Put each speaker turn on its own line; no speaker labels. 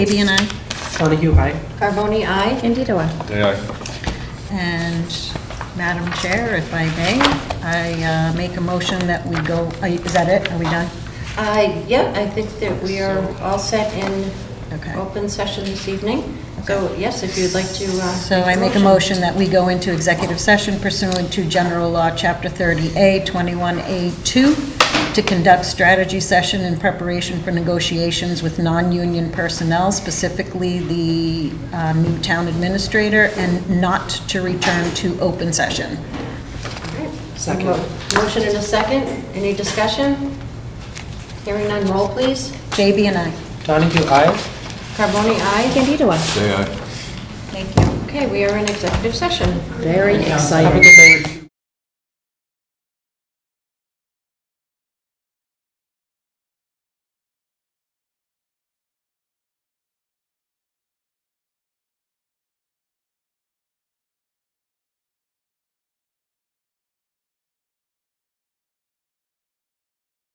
Baby and I,
Donahue, aye.
Carboni, I.
Candido, aye.
Day aye.
and Madam Chair, if I may, I uh, make a motion that we go, are you- is that it? Are we done?
I, yeah, I think that we are all set in
Okay.
open session this evening. So, yes, if you'd like to. uh,
So I make a motion that we go into executive session pursuant to General Law, Chapter 30A, 21A2, to conduct strategy session in preparation for negotiations with non-union personnel, specifically the uh, new town administrator, and not to return to open session.
Second.
Mo- Motion and a second. Any discussion? Hearing none, roll please.
Baby and I.
Donahue, aye.
Carboni, I.
Candido, aye.
Day aye.
Okay, we are in executive session.
Very
Have a
exciting.
good night.